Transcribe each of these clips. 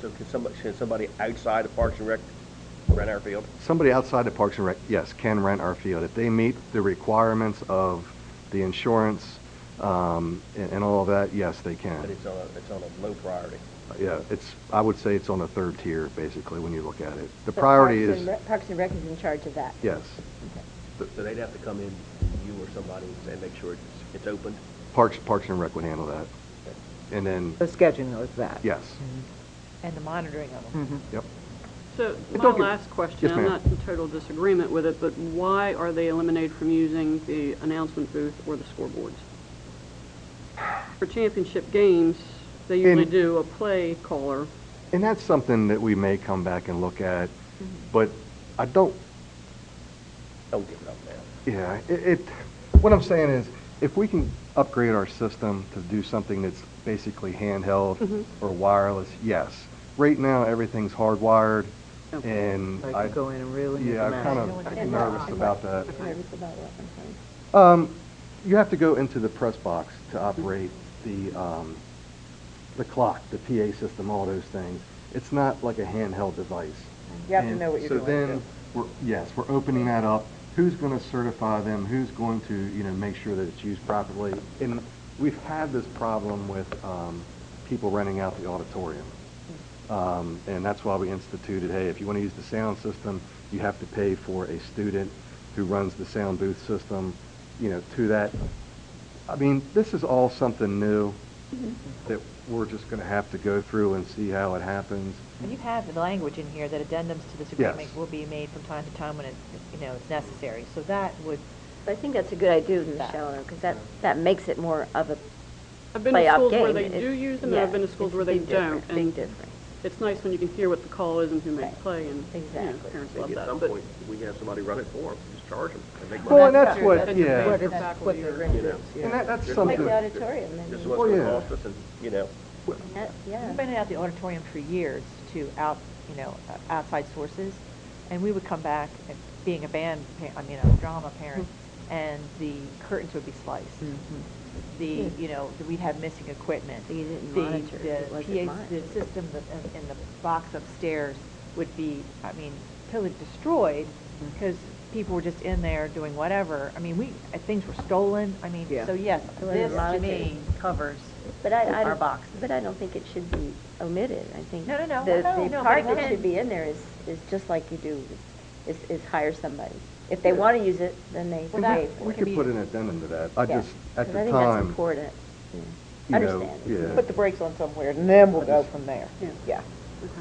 So can somebody, should somebody outside of Parks and Rec rent our field? Somebody outside of Parks and Rec, yes, can rent our field. If they meet the requirements of the insurance um, and and all of that, yes, they But can. it's on a, it's on a low priority. Yeah, it's, I would say it's on the third tier, basically, when you look at it. The priority Parks is, and Rec- Parks and Rec is in charge of that. yes, So they'd have to come in, you or somebody, and make sure it's, it's opened. Parks, Parks and Rec would handle that. And then, The scheduling is that. yes, Mm-hmm. and the monitoring of them. Mhm. yep. So But my don't get- last question, Yes, I'm ma'am. not in total disagreement with it, but why are they eliminated from using the announcement booth or the scoreboards? For championship games, they usually In- do a play caller. And that's something that we may come back and look at, Mm-hmm. but I don't, Don't give it up now. yeah, it, it, what I'm saying is, if we can upgrade our system to do something that's basically handheld Mm-hmm. or wireless, yes. Right now, everything's hardwired, Okay. and I I, could go in and really make yeah, a I'm mess. kind of nervous about that. Nervous about what, I'm sorry. Um, you have to go into the press box to operate the, um, the clock, the PA system, all those things. It's not like a handheld device. You have to And know what you're doing. So then, we're, yes, we're opening that up. Who's going to certify them? Who's going to, you know, make sure that it's used properly? And we've had this problem with, um, people renting out the auditorium. Um, and that's why we instituted, hey, if you want to use the sound system, you have to pay for a student who runs the sound booth system, you know, to that. I mean, this is all something new that we're just going to have to go through and see how it happens. And you have the language in here that addendums to this agreement Yes. will be made from time to time when it, you know, it's necessary. So that would, I think that's a good idea, That. Michelle, because that, that makes it more of a I've been to playoff schools game. where they It- do use them, and I've yeah, been to schools it's where a they big don't. difference, And Big difference. it's nice when you can hear what the call is and who made the play, and, you know, Exactly. parents love Maybe that. at some but- point, we can have somebody run it for them, just charge them and make Well, and money. that's what, That's yeah. what What it's is, what faculty the or- rent You know. is, And yeah. that, that's Like something, the auditorium, This is then. what Oh, it's yeah. gonna cost us, and, you know, That- Yeah. we've been out the auditorium for years to out, you know, uh, outside sources. And we would come back, and being a band, pa- I mean, a drama parent, Mm-hmm. and the curtains would be sliced. The, you know, the- we'd have missing equipment. So you Mm-hmm. didn't The- monitor it, the it wasn't PA monitored. The system that- in- in the box upstairs would be, I mean, totally destroyed Mm-hmm. because people were just in there doing whatever. I mean, we, uh, things were stolen. I mean, Yeah. so yes, It wasn't this to monitored. me covers. But I, I Our don't, box. but I don't think it should be omitted, I think. No, no, no. The, No, the no, part but that it- should be in there is, is just like you do, is, is hire somebody. If they want to use it, then they Well, that- pay for we it. can could be- put an addendum to that. I Yeah. just, at 'Cause the I think that's time, important. Yeah. you know, Understand. yeah. Put the brakes on somewhere, and then we'll go from there. Yeah. Yeah.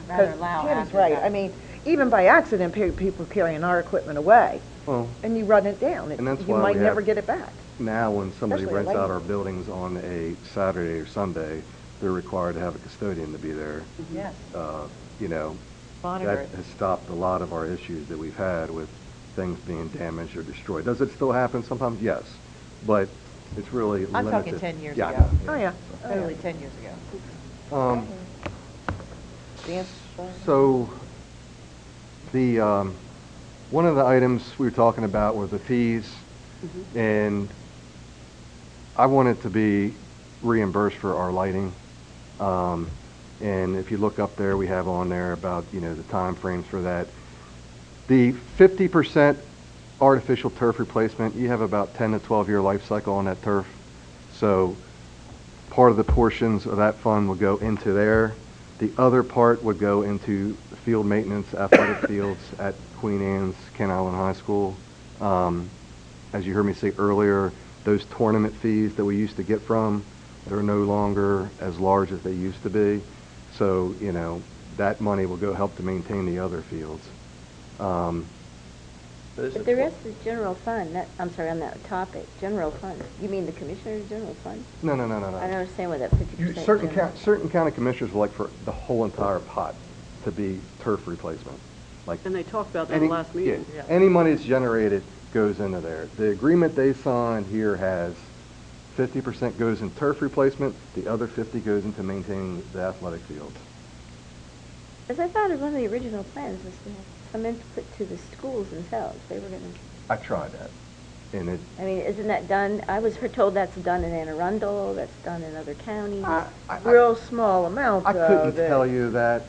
Rather loud Tam's after right, that. I mean, even by accident, pe- people carrying our equipment away, Well, and you run it down, And that's and you why might we never have- get it back. now when somebody Especially at rents out Lakewood. our buildings on a Saturday or Sunday, they're required to have a custodian to be there. Yes. Uh, You know, Monitor that it. has stopped a lot of our issues that we've had with things being damaged or destroyed. Does it still happen sometimes? Yes, but it's really I'm limited. talking 10 years Yeah, I ago. know, Oh, yeah. Oh, yeah. Totally 10 years ago. Um, Dance, uh, So, the, um, one of the items we were talking about were the fees, and I wanted to be reimbursed for our lighting. Um, And if you look up there, we have on there about, you know, the timeframes for that. The 50% artificial turf replacement, you have about 10 to 12-year life cycle on that turf. So part of the portions of that fund would go into there. The other part would go into field maintenance, athletic fields at Queen Anne's, Kent Island High School. Um, As you heard me say earlier, those tournament fees that we used to get from, they're no longer as large as they used to be. So, you know, that money will go help to maintain the other fields. Um, this Oh, But is there what- is the general fund, that, I'm sorry, on that topic, general fund. You mean the commissioner's general fund? No, no, no, no, no. I don't understand what that fifty You- percent. Certain, coun- certain county commissioners would like for the whole entire pot to be turf replacement, like. And they talked about that any- last yeah, meeting. Any money that's generated goes into there. The agreement they signed here has fifty percent goes in turf replacement, the other fifty goes into maintaining the athletic fields. Because I thought of one of the original plans was to have some input to the schools themselves. They were gonna, I tried that, and it, I mean, isn't that done? I was her- told that's done in Anne Arundel, that's done in other counties. I, I- Real small amount, I though, uh, couldn't that- tell you that